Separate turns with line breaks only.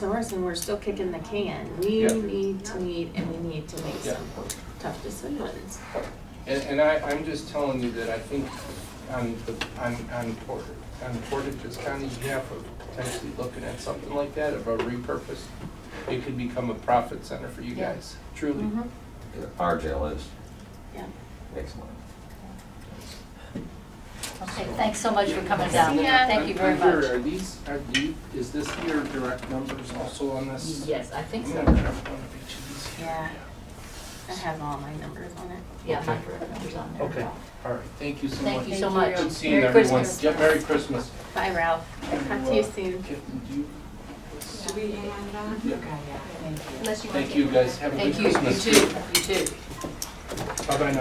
source and we're still kicking the can. We
Yeah.
need to meet and we need to make
Yeah.
some tough decisions.
And, and I, I'm just telling you that I think on the, on, on Portage, on Portage's County behalf of potentially looking at something like that, of a repurpose, it could become a profit center for you
Yeah.
guys, truly.
Mm-hmm.
Mhm.
Our jail is
Yeah.
excellent.
Okay, thanks so much for coming down.
See ya.
Thank you very
I'm- I'm here.
much.
Are these, are the, is this your direct numbers also on this?
Yes, I think
I'm gonna
so.
grab one of each of these.
Yeah. I have all my numbers on it.
Yeah, my direct number's on there.
Okay, all right, thank you so much.
Thank you so
Thank
much.
you.
Good seeing
Merry
everyone.
Christmas.
Yeah, Merry Christmas.
Bye, Ralph. Talk to you soon.
Kitten, do you?
Should we hang on now?
Yeah.
Thank you.
Thank you, guys. Have a good
Mm-hmm. Thank you, you
Christmas.
too, you too.
Bye-bye now.